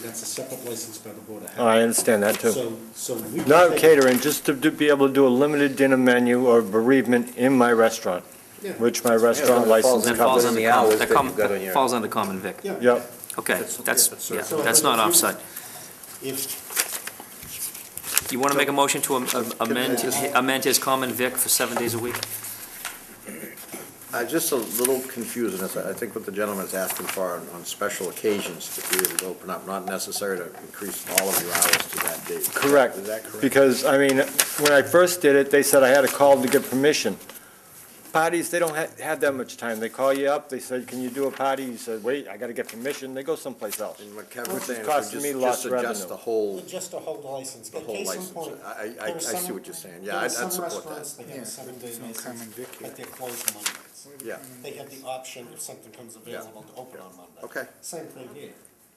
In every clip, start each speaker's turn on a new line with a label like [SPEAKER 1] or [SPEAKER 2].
[SPEAKER 1] that's a separate license by the Board of
[SPEAKER 2] Oh, I
[SPEAKER 1] Health.
[SPEAKER 2] understand that too.
[SPEAKER 1] So, so we. can
[SPEAKER 2] Not
[SPEAKER 1] take-
[SPEAKER 2] catering, just to do- be able to do a limited dinner menu or bereavement in my restaurant,
[SPEAKER 1] Yeah.
[SPEAKER 2] which my
[SPEAKER 3] Yeah,
[SPEAKER 2] restaurant
[SPEAKER 3] it falls
[SPEAKER 2] license
[SPEAKER 3] in-
[SPEAKER 4] That falls
[SPEAKER 2] covers.
[SPEAKER 4] on
[SPEAKER 3] Covers
[SPEAKER 4] the
[SPEAKER 3] the
[SPEAKER 4] hours,
[SPEAKER 3] hours
[SPEAKER 4] that
[SPEAKER 3] that
[SPEAKER 4] com,
[SPEAKER 3] you've got on
[SPEAKER 4] that
[SPEAKER 3] your-
[SPEAKER 4] falls under common vic.
[SPEAKER 1] Yeah.
[SPEAKER 2] Yep,
[SPEAKER 4] Okay, that's, yeah,
[SPEAKER 1] So
[SPEAKER 4] that's
[SPEAKER 1] if
[SPEAKER 4] not
[SPEAKER 1] you-
[SPEAKER 4] offside.
[SPEAKER 1] If,
[SPEAKER 4] You want to make a motion to am- am- amend,
[SPEAKER 1] Can I-
[SPEAKER 4] amend his common vic for seven days a week?
[SPEAKER 3] Uh, Just a little confusion, is I think what the gentleman is asking for on- on special occasions to be able to open up, not necessary to increase all of your hours to that date.
[SPEAKER 2] Correct.
[SPEAKER 3] Is that correct?
[SPEAKER 2] because, I mean, when I first did it, they said I had to call to get permission. Parties, they don't ha- have that much time. They call you up, they said, can you do a party? You said, wait, I gotta get permission. They go someplace else.
[SPEAKER 3] And what Kevin's
[SPEAKER 2] Which is
[SPEAKER 3] saying is we
[SPEAKER 2] costing me
[SPEAKER 3] just-
[SPEAKER 2] lots
[SPEAKER 3] just
[SPEAKER 2] of
[SPEAKER 3] adjust
[SPEAKER 2] revenue.
[SPEAKER 3] the whole,
[SPEAKER 1] just to hold the license,
[SPEAKER 3] the
[SPEAKER 1] but
[SPEAKER 3] whole
[SPEAKER 1] case in
[SPEAKER 3] license.
[SPEAKER 1] point.
[SPEAKER 3] I, I- I
[SPEAKER 1] there are
[SPEAKER 3] I see
[SPEAKER 1] some-
[SPEAKER 3] what you're saying,
[SPEAKER 1] there
[SPEAKER 3] yeah,
[SPEAKER 1] are
[SPEAKER 3] I'd
[SPEAKER 1] some
[SPEAKER 3] I'd support
[SPEAKER 1] restaurants
[SPEAKER 3] that.
[SPEAKER 1] that have a seven-day license, but they're closed Mondays.
[SPEAKER 3] Yeah,
[SPEAKER 1] They have the option, if something comes available, to open on Monday.
[SPEAKER 3] okay.
[SPEAKER 1] Same thing here.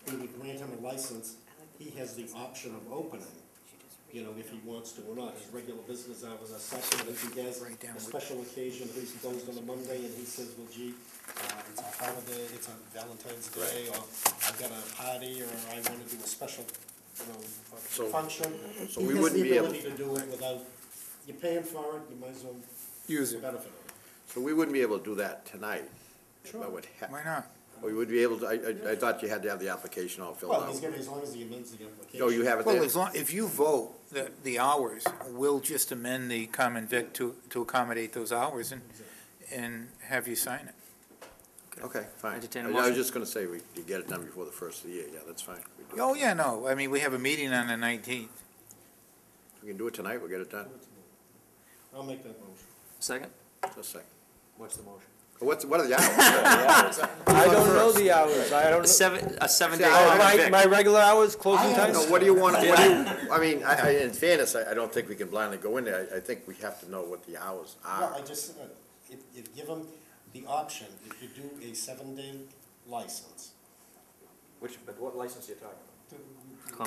[SPEAKER 1] We would grant him a license, he has the option of opening, you know, if he wants to or not. His regular business hours are such that if he has a special occasion, he's closed on a Monday, and he says, well, gee, uh, it's a holiday, it's on Valentine's Day, or I've got a party, or I wanna do a special, you know,
[SPEAKER 3] So-
[SPEAKER 1] function.
[SPEAKER 3] so we wouldn't be able-
[SPEAKER 1] He has the ability to do it without, you're paying for it, you might as well
[SPEAKER 5] Use it.
[SPEAKER 1] benefit it.
[SPEAKER 3] So we wouldn't be able to do that tonight.
[SPEAKER 1] Sure.
[SPEAKER 3] That would ha-
[SPEAKER 5] Why not?
[SPEAKER 3] We would be able to, I- I, I thought you had to have the application all filled
[SPEAKER 1] Well, he's
[SPEAKER 3] out.
[SPEAKER 1] gonna, as long as he amends the application.
[SPEAKER 3] Oh, you have it
[SPEAKER 5] Well,
[SPEAKER 3] there?
[SPEAKER 5] as long, if you vote that the hours, we'll just amend the common vic to, to accommodate those hours and, and have you sign it.
[SPEAKER 3] Okay, fine.
[SPEAKER 4] Entertain a
[SPEAKER 3] I
[SPEAKER 4] motion.
[SPEAKER 3] was just gonna say, we, you get it done before the first of the year, yeah, that's fine. We do it.
[SPEAKER 5] Oh, yeah, no, I mean, we have a meeting on the nineteenth.
[SPEAKER 3] We can do it tonight, we'll get it done,
[SPEAKER 1] I'll make that motion.
[SPEAKER 4] Second?
[SPEAKER 3] just a second.
[SPEAKER 1] What's the motion?
[SPEAKER 3] What's, what are the hours?
[SPEAKER 2] I don't know the hours. I don't
[SPEAKER 4] A
[SPEAKER 2] know.
[SPEAKER 4] seven, a seven-day
[SPEAKER 3] See, I-
[SPEAKER 2] Oh,
[SPEAKER 4] common
[SPEAKER 2] My,
[SPEAKER 4] vic.
[SPEAKER 2] my regular hours, closing
[SPEAKER 3] I
[SPEAKER 2] times?
[SPEAKER 3] don't know, what do you want, what do you, I mean, I, I, in fairness, I, I don't think we can blindly go in there, I, I think we have to know what the hours
[SPEAKER 1] Well, I
[SPEAKER 3] are.
[SPEAKER 1] just, uh, if, if give him the option, if you do a seven-day license.
[SPEAKER 6] Which, but what license are you talking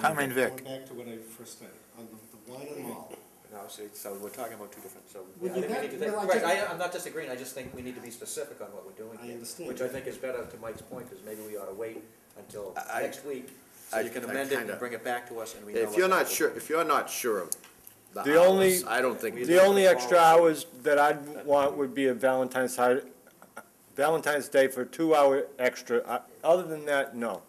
[SPEAKER 5] Common
[SPEAKER 1] Going
[SPEAKER 5] vic.
[SPEAKER 1] back to what I first said, on the, the wine and malt.
[SPEAKER 6] about? No, so, so we're talking about two different, so.
[SPEAKER 1] Well, you
[SPEAKER 6] I think we
[SPEAKER 1] got-
[SPEAKER 6] need to think-
[SPEAKER 1] well, I
[SPEAKER 6] Right,
[SPEAKER 1] just-
[SPEAKER 6] I, I'm not disagreeing, I just think we need to be specific on what we're doing
[SPEAKER 1] I
[SPEAKER 6] here.
[SPEAKER 1] understand.
[SPEAKER 6] Which I think is better, to Mike's point, because maybe we ought to wait until
[SPEAKER 3] I-
[SPEAKER 6] next week, so
[SPEAKER 3] I-
[SPEAKER 6] you can
[SPEAKER 3] I
[SPEAKER 6] amend it
[SPEAKER 3] kinda-
[SPEAKER 6] and bring it back to us and we know.
[SPEAKER 3] If
[SPEAKER 6] what
[SPEAKER 3] you're not
[SPEAKER 6] that's
[SPEAKER 3] sure,
[SPEAKER 6] about.
[SPEAKER 3] if you're not sure of
[SPEAKER 2] The
[SPEAKER 3] the
[SPEAKER 2] only-
[SPEAKER 3] hours, I don't think. we-
[SPEAKER 2] The only extra hours that I'd want would be a Valentine's, hi- Valentine's Day for two hour extra. Uh, Other than that, no.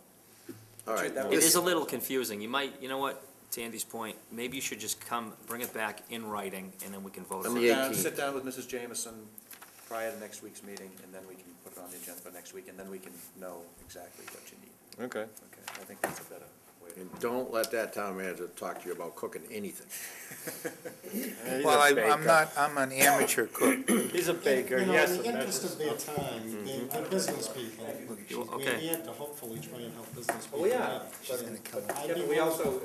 [SPEAKER 3] All right.
[SPEAKER 6] That
[SPEAKER 4] It
[SPEAKER 6] was-
[SPEAKER 4] is a little confusing. You might, you know what, to Andy's point, maybe you should just come, bring it back in writing, and then we can vote
[SPEAKER 3] On
[SPEAKER 4] on
[SPEAKER 3] the
[SPEAKER 4] it.
[SPEAKER 6] Sit down-
[SPEAKER 3] 18th.
[SPEAKER 6] Sit down with Mrs. Jameson prior to next week's meeting, and then we can put it on the agenda for next week, and then we can know exactly what you need.
[SPEAKER 2] Okay.
[SPEAKER 6] Okay, I think that's a better way to.
[SPEAKER 3] And don't let that town manager talk to you about cooking anything.
[SPEAKER 5] Well, I, I'm not, I'm an amateur cook.
[SPEAKER 2] He's a baker,
[SPEAKER 1] You know,
[SPEAKER 2] yes.
[SPEAKER 1] In the interest of their time, they- they're business people. We're
[SPEAKER 4] Okay,
[SPEAKER 1] here to hopefully try and help business people.
[SPEAKER 6] Well, Oh, yeah,
[SPEAKER 1] out.
[SPEAKER 6] but,
[SPEAKER 1] I'd
[SPEAKER 6] yeah,
[SPEAKER 1] be
[SPEAKER 6] but we
[SPEAKER 1] willing-
[SPEAKER 6] also,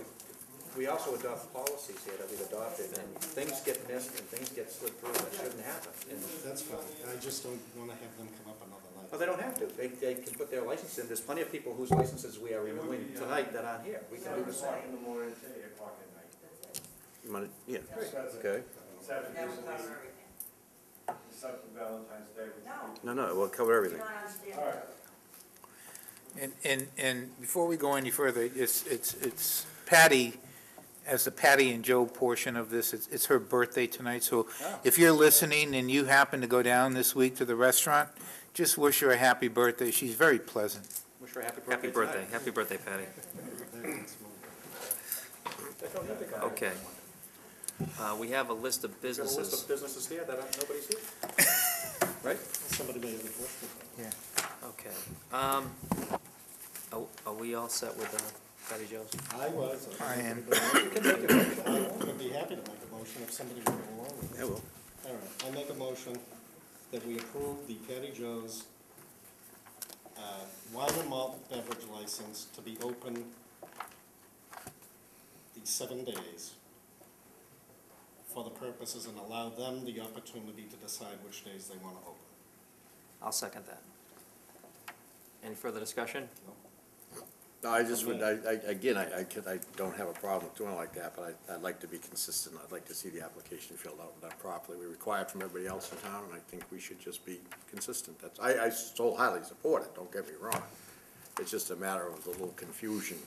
[SPEAKER 6] we also adopt policies here that we've adopted, and things get missed and things get slipped through, that shouldn't happen. And-
[SPEAKER 1] That's fine, I just don't wanna have them come up another
[SPEAKER 6] Well,
[SPEAKER 1] night.
[SPEAKER 6] they don't have to, they, they can put their license in, there's plenty of people whose licenses we are renewing tonight that aren't here, we can do the same.
[SPEAKER 3] You wanna- Yeah, okay.
[SPEAKER 7] except for Valentine's Day, which
[SPEAKER 3] No, no, we'll cover everything.
[SPEAKER 5] And, and, and before we go any further, it's, it's, it's Patty, as the Patty and Joe portion of this, it's, it's her birthday tonight, so if you're listening and you happen to go down this week to the restaurant, just wish her a happy birthday. She's very pleasant.
[SPEAKER 6] Wish her a happy birthday
[SPEAKER 4] happy birthday,
[SPEAKER 6] tonight.
[SPEAKER 4] happy birthday, Patty. Okay. Uh, we have a list of
[SPEAKER 6] Got a list
[SPEAKER 4] businesses.
[SPEAKER 6] of businesses here that aren't- nobody's here. Right?
[SPEAKER 1] Somebody may have a question.
[SPEAKER 4] Okay, um, are, are we all set with, uh, Patty Joe's?
[SPEAKER 1] I was.
[SPEAKER 5] I am.
[SPEAKER 1] I'd be happy to make a motion if somebody would go along with it.
[SPEAKER 3] Yeah, well,
[SPEAKER 1] All right, I make a motion that we approve the Patty Joe's uh, wine and malt beverage license to be open these seven days for the purposes and allow them the opportunity to decide which days they want to open.
[SPEAKER 4] I'll second that. Any further discussion?
[SPEAKER 3] No, I just would, I, I, again, I, I could, I don't have a problem with doing it like that, but I, I'd like to be consistent. I'd like to see the application filled out and done properly. We require it from everybody else in town, and I think we should just be consistent. That's, I, I so highly support it, don't get me wrong. It's just a matter of the little confusion